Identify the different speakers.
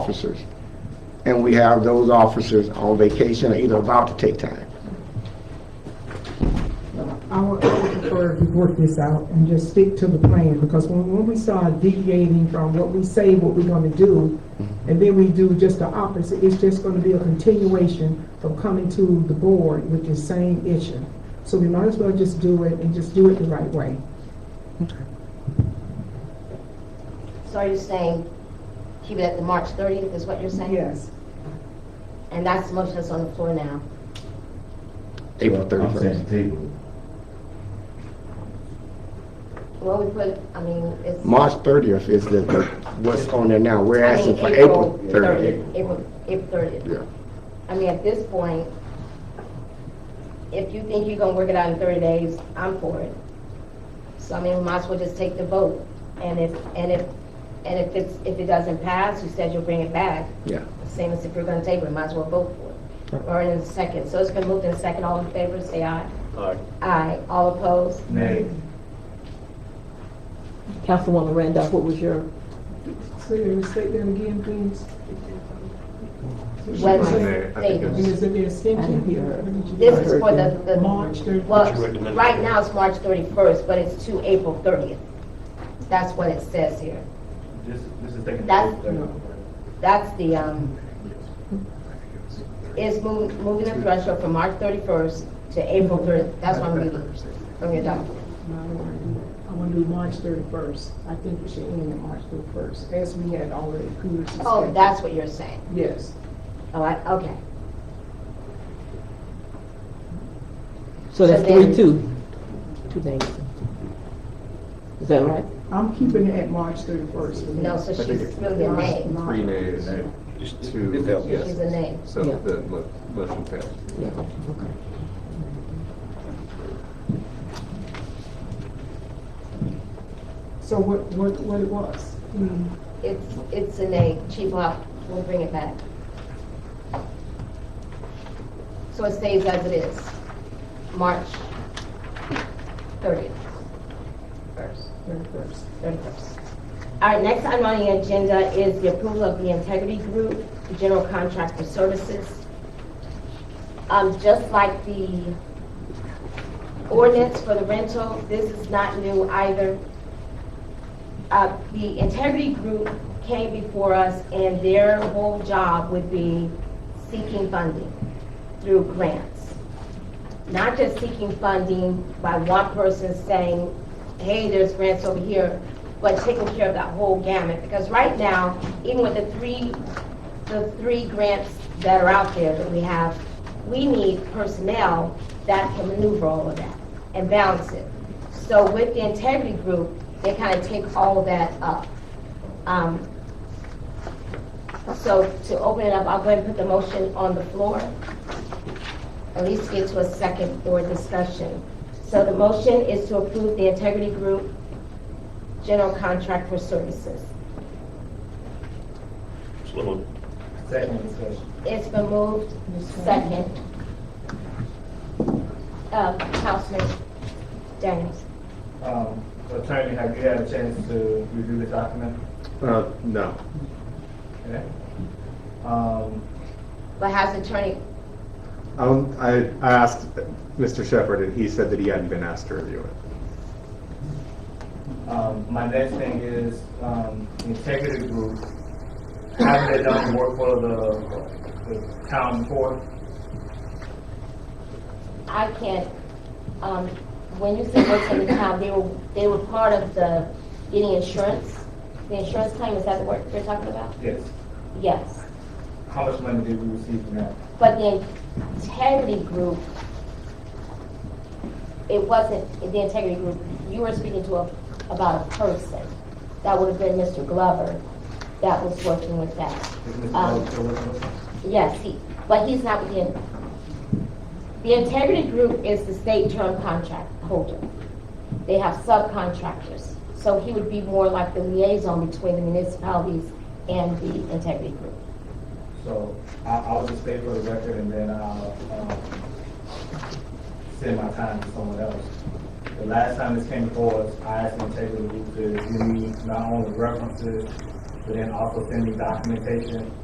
Speaker 1: officers. And we have those officers on vacation, or either about to take time.
Speaker 2: I would I would prefer we work this out and just stick to the plan, because when, when we start deviating from what we say, what we're gonna do, and then we do just the opposite, it's just gonna be a continuation of coming to the board with the same issue. So we might as well just do it and just do it the right way.
Speaker 3: So are you saying keep it at the March 30th is what you're saying? And that's the motion that's on the floor now.
Speaker 1: April
Speaker 4: I'm saying
Speaker 1: thirty-first.
Speaker 4: table
Speaker 3: Well, we put, I mean, it's.
Speaker 1: March thirtieth is the, what's on there now. We're
Speaker 3: I mean,
Speaker 1: asking for April thirtieth.
Speaker 3: April, April 30th.
Speaker 1: Yeah.
Speaker 3: I mean, at this point, if you think you're gonna work it out in thirty days, I'm for it. So I mean, we might as well just take the vote. And if, and if, and if it's, if it doesn't pass, you said you'll bring it back.
Speaker 1: Yeah.
Speaker 3: Same as if you're gonna table it, might as well vote for it. Or in a second. So it's been moved in second. All in favor, say aye.
Speaker 5: Aye.
Speaker 3: Aye. All opposed?
Speaker 4: Nay.
Speaker 6: Councilwoman Randolph, what was your,
Speaker 2: So you state that again, please?
Speaker 3: Whether- they-
Speaker 2: Is it the extension?
Speaker 6: I didn't hear.
Speaker 3: This is for the, the.
Speaker 2: March thirty.
Speaker 3: Well, right now it's March thirty-first, but it's to April thirtieth. That's what it says here.
Speaker 4: This, this is taking.
Speaker 3: That's- That's the, um, it's moving, moving the threshold from March thirty-first to April thirtieth. That's what I'm reading from your document.
Speaker 2: I want to do March thirty-first. I think we should end it March thirty-first, as we had already previously stated.
Speaker 3: Oh, that's what you're saying.
Speaker 2: Yes.
Speaker 3: Oh, I, okay.
Speaker 6: so that's
Speaker 3: So then-
Speaker 6: three, two, two days. Is that right?
Speaker 2: I'm keeping it at March thirty-first.
Speaker 3: No, so she's really a nay.
Speaker 7: Three nays, two,
Speaker 3: She's a nay.
Speaker 7: so
Speaker 6: Yeah.
Speaker 7: the mo- motion fails.
Speaker 6: Yeah, okay.
Speaker 2: So what, what, what it was?
Speaker 3: It's, it's a nay. Chief Locke will bring it back. So it stays as it is, March thirtieth. First.
Speaker 2: Thirty-first.
Speaker 3: 31st. Our next item on the agenda is the approval of the Integrity Group General Contractor Services. Um, just like the ordinance for the rental, this is not new either. Uh, the Integrity Group came before us and their whole job would be seeking funding through grants not just seeking funding by one person saying, hey, there's grants over here, but taking care of that whole gamut. Because right now, even with the three, the three grants that are out there that we have, we need personnel that can maneuver all of that and balance it. So with the integrity group, they kind of take all of that up. Um, So to open it up, I'll go ahead and put the motion on the floor at least get to a second for discussion. So the motion is to approve the integrity group general contract for services.
Speaker 5: So moved.
Speaker 4: Second discussion.
Speaker 3: It's been moved, second. Uh, Councilman Daniels.
Speaker 4: Um, attorney, have you had a chance to review the document?
Speaker 7: Uh, no.
Speaker 4: Okay. Um,
Speaker 3: But has attorney,
Speaker 7: Um, I, I asked Mr. Shepherd and he said that he hadn't been asked to review it.
Speaker 4: Um, my next thing is, um, integrity group, haven't they done work for the, the town before?
Speaker 3: I can't, um, when you said work for the town, they were, they were part of the getting insurance? The insurance claim, is that the work you're talking about?
Speaker 4: Yes.
Speaker 3: Yes.
Speaker 4: How much money did we receive from that?
Speaker 3: But the integrity group, it wasn't the integrity group, you were speaking to a, about a person. That would have been Mr. Glover that was working with that.
Speaker 4: Is Mr.
Speaker 3: Um,
Speaker 4: Bell still working with us?
Speaker 3: Yes, he, but he's not within. The integrity group is the state term contract holder. They have subcontractors. So he would be more like the liaison between the municipalities and the integrity group.
Speaker 4: So I, I will just stay for the record and then I'll, um, send my time to someone else. The last time this came before us, I asked them to take a look to give me not only references, but then also send me documentation